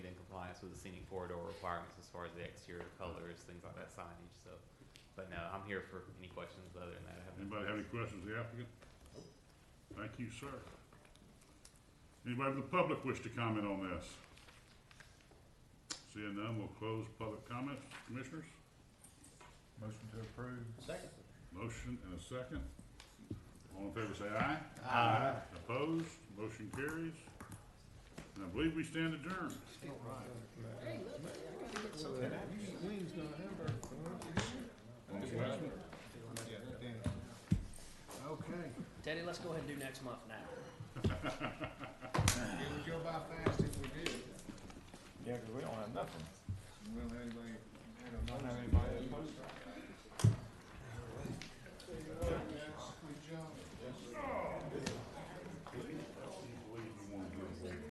complies with the scenic corridor requirements as far as the exterior colors, things like that signage, so. But no, I'm here for any questions other than that. I have no Anybody have any questions, of the applicant? Thank you, sir. Anybody from the public wish to comment on this? Seeing none, we'll close public comments. Commissioners, Motion to approve. Second. motion and a second. All in favor, say aye. Aye. Opposed, motion carries. And I believe we stand adjourned. Wings, not hamburger. Okay, Teddy, let's go ahead and do next month now. it would go by fast if we did. Yeah, 'cause we don't have nothing. We don't have anybody, we don't have anybody.